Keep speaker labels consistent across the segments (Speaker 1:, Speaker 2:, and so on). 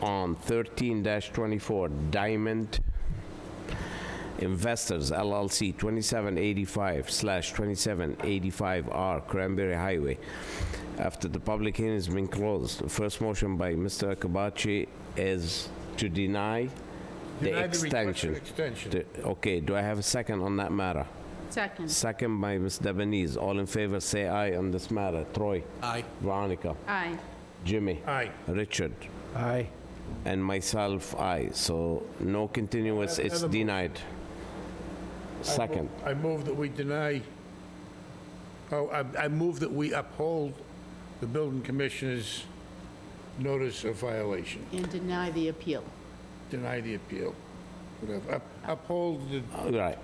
Speaker 1: on 13-24 Diamond Investors LLC, 2785/2785R Cranberry Highway. After the public hearing has been closed, first motion by Mr. Akabachi is to deny the
Speaker 2: Deny the request for
Speaker 1: extension.
Speaker 2: extension.
Speaker 1: To- Okay, do I have a second on that matter?
Speaker 3: Second.
Speaker 1: Second by Ms. Debonese. All in favor, say aye on this matter. Troy?
Speaker 4: Aye.
Speaker 1: Veronica?
Speaker 3: Aye.
Speaker 1: Jimmy?
Speaker 2: Aye.
Speaker 1: Richard?
Speaker 4: Aye.
Speaker 1: And myself, aye. So no continuous,
Speaker 2: Have-
Speaker 1: it's
Speaker 2: have a motion.
Speaker 1: denied. Second.
Speaker 2: I move that we deny, oh, I I move that we uphold the building commissioner's notice of violation,
Speaker 3: And deny the appeal.
Speaker 2: deny the appeal, whatever. Up- Uphold, the
Speaker 1: All Right.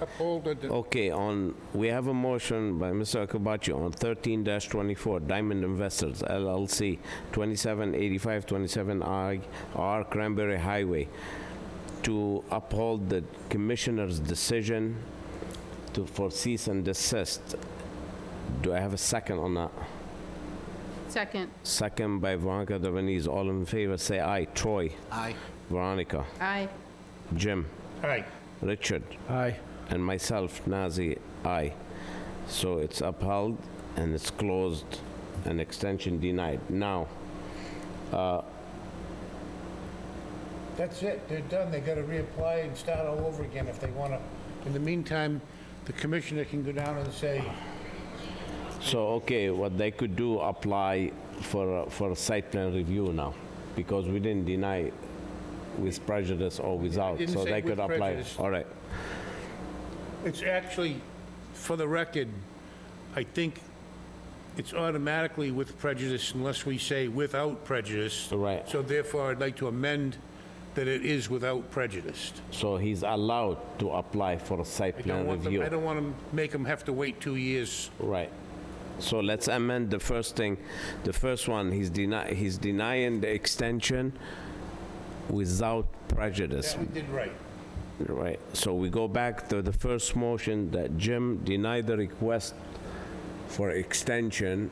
Speaker 2: uphold, the-
Speaker 1: Okay, on, we have a motion by Mr. Akabachi on 13-24 Diamond Investors LLC, 2785-27I R Cranberry Highway, to uphold the commissioner's decision to, for cease and desist. Do I have a second on that?
Speaker 3: Second.
Speaker 1: Second by Veronica Devenese. All in favor, say aye. Troy,
Speaker 4: Aye.
Speaker 1: Veronica,
Speaker 3: Aye.
Speaker 1: Jim,
Speaker 2: aye,
Speaker 1: Richard,
Speaker 4: Aye.
Speaker 1: and myself, Nazi, aye. So it's upheld and it's closed and extension denied. Now,
Speaker 2: that's it, they're done, they gotta reapply and start all over again if they wanna. In the meantime, the commissioner can go down and say,
Speaker 1: so, okay, what they could do, apply for, a- for a site plan review now, because we didn't deny with prejudice or without,
Speaker 2: didn't
Speaker 1: so
Speaker 2: say
Speaker 1: they
Speaker 2: with
Speaker 1: could apply.
Speaker 2: prejudice.
Speaker 1: All right,
Speaker 2: It's actually, for the record, I think it's automatically with prejudice unless we say without prejudice.
Speaker 1: Right.
Speaker 2: So therefore, I'd like to amend that it is without prejudice.
Speaker 1: so he's allowed to apply for a site
Speaker 2: I don't
Speaker 1: plan
Speaker 2: want them,
Speaker 1: review.
Speaker 2: I don't want to make them have to wait two years.
Speaker 1: Right. So let's amend the first thing. The first one, he's deny, he's denying the extension without prejudice,
Speaker 2: We did right.
Speaker 1: right? So we go back to the first motion that Jim denied the request for extension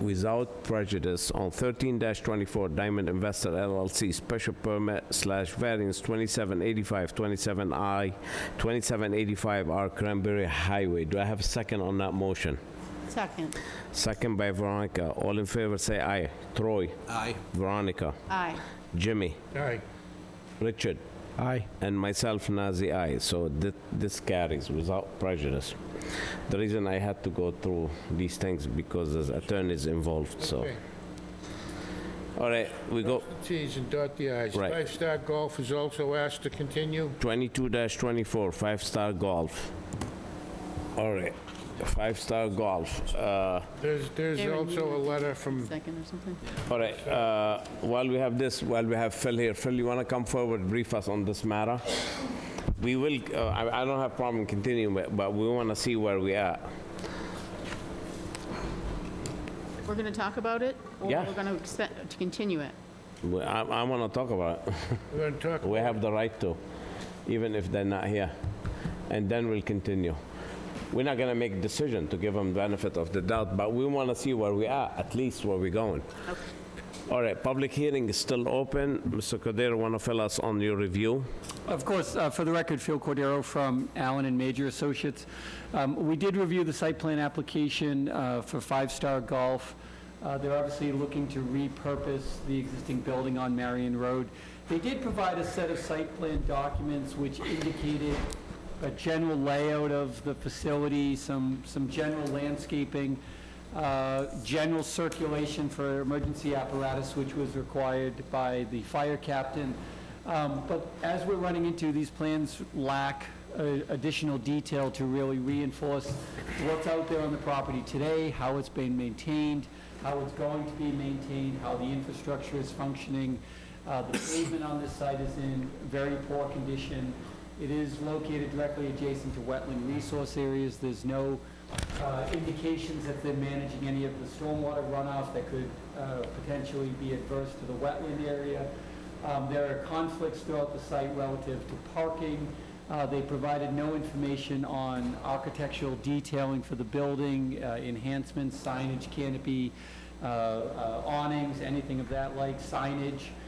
Speaker 1: without prejudice on 13-24 Diamond Investor LLC special permit slash variance 2785, 27I, 2785R Cranberry Highway. Do I have a second on that motion?
Speaker 3: Second.
Speaker 1: Second by Veronica. All in favor, say aye. Troy,
Speaker 4: Aye.
Speaker 1: Veronica,
Speaker 3: Aye.
Speaker 1: Jimmy,
Speaker 2: All right,
Speaker 1: Richard,
Speaker 4: Aye.
Speaker 1: and myself, Nazi, aye. So thi- this carries without prejudice. The reason I had to go through these things because there's attorneys involved, so.
Speaker 2: Okay.
Speaker 1: All right, we go
Speaker 2: T's and dot the i's.
Speaker 1: Right.
Speaker 2: Five Star Golf is also asked to continue.
Speaker 1: 22-24, Five Star Golf. All right, Five Star Golf. Uh,
Speaker 2: There's, there's
Speaker 3: Aaron, you
Speaker 2: also a
Speaker 3: want to-
Speaker 2: letter from,
Speaker 3: Second or something?
Speaker 1: All right, uh, while we have this, while we have Phil here, Phil, you want to come forward, brief us on this matter? We will, uh, I I don't have problem continuing, but- but we want to see where we are.
Speaker 3: We're going to talk about it?
Speaker 1: Yeah.
Speaker 3: Or we're going to to continue it?
Speaker 1: We- I want to talk about it.
Speaker 2: we're going to talk,
Speaker 1: We have the right to, even if they're not here. And then we'll continue. We're not going to make decision to give them benefit of the doubt, but we want to see where we are, at least where we're going.
Speaker 3: Okay.
Speaker 1: All right, public hearing is still open. Mr. Cordero, want to fill us on your review?
Speaker 5: Of course, uh, for the record, Phil Cordero from Allen and Major Associates. Um, We did review the site plan application uh, for Five Star Golf. Uh, They're obviously looking to repurpose the existing building on Marion Road. They did provide a set of site plan documents which indicated a general layout of the facility, some, some general landscaping, uh, general circulation for emergency apparatus, which was required by the fire captain. Um, But as we're running into, these plans lack uh, additional detail to really reinforce what's out there on the property today, how it's been maintained, how it's going to be maintained, how the infrastructure is functioning. Uh, The pavement on this site is in very poor condition. It is located directly adjacent to wetland resource areas. There's no uh, indications that they're managing any of the stormwater runoff that could uh, potentially be adverse to the wetland area. Um, There are conflicts throughout the site relative to parking. Uh, They provided no information on architectural detailing for the building, uh, enhancements, signage, canopy, uh, uh, awnings, anything of that like, signage.